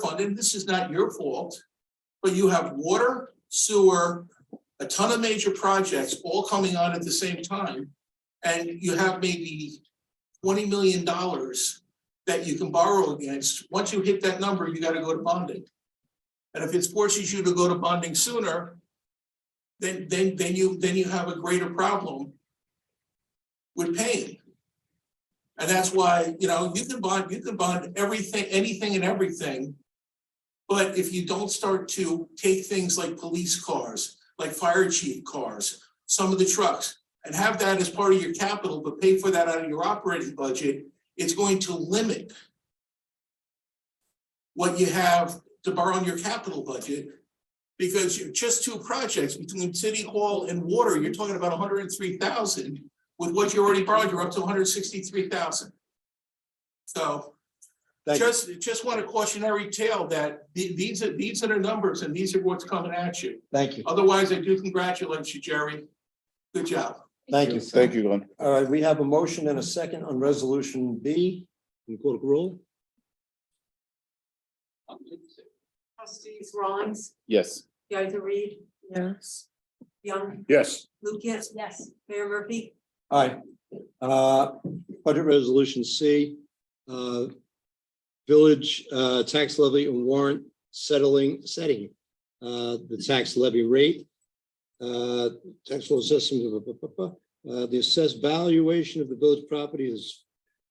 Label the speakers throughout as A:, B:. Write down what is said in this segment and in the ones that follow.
A: flooded, this is not your fault. But you have water, sewer, a ton of major projects all coming on at the same time. And you have maybe twenty million dollars that you can borrow against. Once you hit that number, you gotta go to bonding. And if it forces you to go to bonding sooner, then, then, then you, then you have a greater problem with paying. And that's why, you know, you can bond, you can bond everything, anything and everything. But if you don't start to take things like police cars, like fire chief cars, some of the trucks, and have that as part of your capital, but pay for that out of your operating budget, it's going to limit what you have to borrow on your capital budget. Because you're just two projects between city hall and water, you're talking about hundred and three thousand with what you already borrowed, you're up to hundred sixty-three thousand. So
B: Thank you.
A: just, just want a cautionary tale that the- these are, these are the numbers and these are what's coming at you.
B: Thank you.
A: Otherwise, I do congratulate you, Jerry. Good job.
B: Thank you.
C: Thank you, Glenn.
B: All right, we have a motion and a second on resolution B. Can you call the roll?
D: Trustees Rawlings,
C: Yes.
D: Geiser Reed,
E: Yes.
D: Young,
C: Yes.
D: Lucas,
E: Yes.
D: Mayor Murphy.
B: All right. Uh, budget resolution C, uh, village, uh, tax levy and warrant settling, setting, uh, the tax levy rate, uh, tax law system, blah, blah, blah, blah. uh, the assessed valuation of the village property is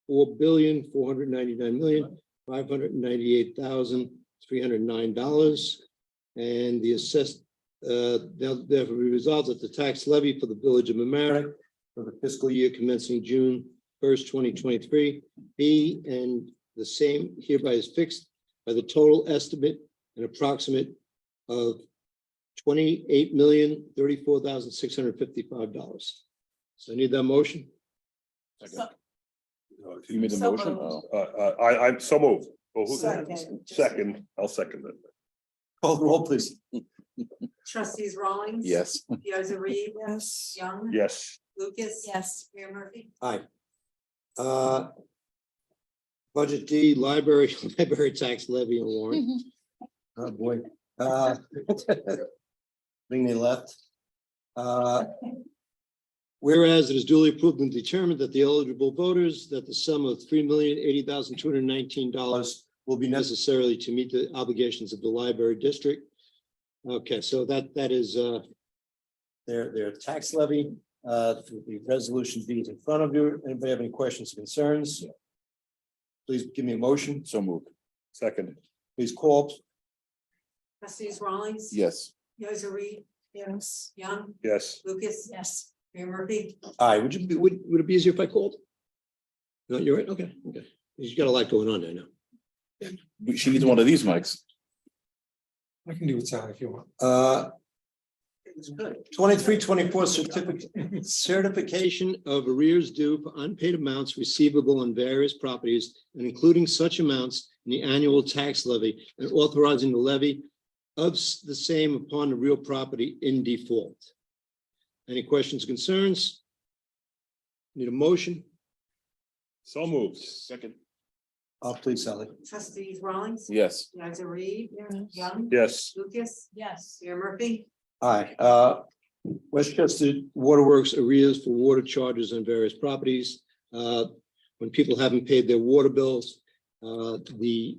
B: four billion, four hundred ninety-nine million, five hundred ninety-eight thousand, three hundred nine dollars. And the assessed, uh, now therefore resolves that the tax levy for the village of Mamaronek for the fiscal year commencing June first, twenty twenty-three. B and the same hereby is fixed by the total estimate and approximate of twenty-eight million, thirty-four thousand, six hundred fifty-five dollars. So I need that motion.
C: You made the
E: So
C: motion?
E: moved.
C: Uh, uh, I, I'm so moved. Oh, who-
E: Second.
C: Second, I'll second it.
B: Call the roll, please.
D: Trustees Rawlings.
C: Yes.
D: Geiser Reed,
E: Yes.
D: Young.
C: Yes.
D: Lucas.
E: Yes.
D: Mayor Murphy.
B: Aye. Uh, Budget D, library, library tax levy and warrant. Oh, boy. Uh, Thing they left. Uh, Whereas it is duly approved and determined that the eligible voters, that the sum of three million eighty thousand two hundred nineteen dollars will be necessarily to meet the obligations of the library district. Okay, so that, that is, uh, their, their tax levy. Uh, the resolution B is in front of you. Anybody have any questions, concerns? Please give me a motion.
C: So moved. Second,
B: Please call.
D: Trustees Rawlings.
C: yes.
D: Geiser Reed,
E: Yes.
D: Young,
C: Yes.
D: Lucas.
E: Yes.
D: Mayor Murphy.
B: Aye, would you, be- would, would it be easier if I called? No, you're right. Okay, okay. You've got a lot going on there now.
C: She needs one of these mics.
F: I can do it, Sal, if you want.
B: Uh,
A: It's good.
B: twenty-three, twenty-four certificate, certification of arrears due for unpaid amounts receivable on various properties and including such amounts in the annual tax levy and authorizing the levy of s- the same upon the real property in default. Any questions, concerns? Need a motion?
C: So moved. Second.
B: Oh, please, Sally.
D: Trustees Rawlings.
C: Yes.
D: Geiser Reed,
E: Yes.
D: Young.
C: Yes.
D: Lucas.
E: Yes.
D: Mayor Murphy.
B: Aye, uh, Westchester Waterworks arrears for water charges on various properties. Uh, when people haven't paid their water bills, uh, the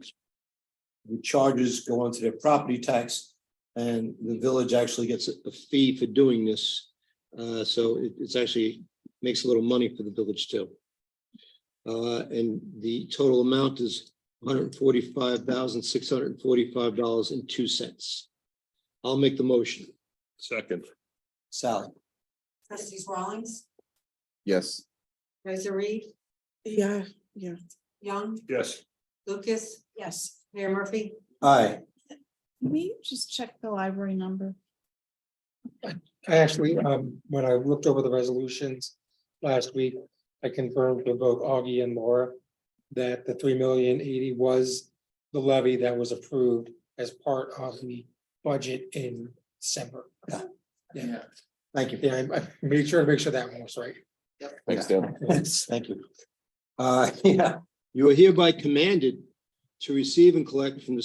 B: the charges go onto their property tax and the village actually gets a a fee for doing this. Uh, so it, it's actually makes a little money for the village too. Uh, and the total amount is one hundred forty-five thousand, six hundred forty-five dollars and two cents. I'll make the motion.
C: Second,
B: Sally.
D: Trustees Rawlings.
C: yes.
D: Geiser Reed,
E: Yeah, yeah.
D: Young,
C: Yes.
D: Lucas.
E: Yes.
D: Mayor Murphy.
B: Aye.
E: Can we just check the library number?
F: I actually, um, when I looked over the resolutions last week, I confirmed with both Augie and Laura that the three million eighty was the levy that was approved as part of the budget in December.
A: Yeah.
B: Thank you.
F: Yeah, I- I made sure to make sure that one was right.
C: Thanks, Dan.
B: Thank you. Uh, yeah. You are hereby commanded to receive and collect from the